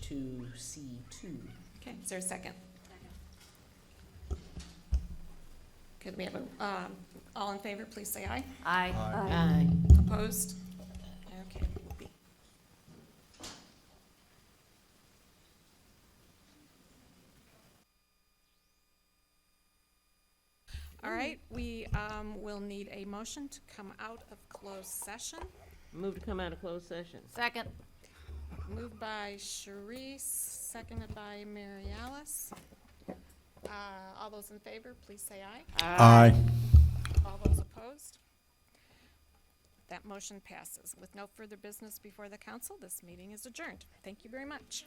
two C two. Okay, is there a second? Could we have a, um, all in favor, please say aye. Aye. Aye. Opposed? Okay. will be. All right, we um, will need a motion to come out of closed session. Move to come out of closed session. Second. Moved by Sharice, seconded by Mary Alice. Uh, All those in favor, please say aye. Aye. All those opposed? That motion passes. With no further business before the council, this meeting is adjourned. Thank you very much.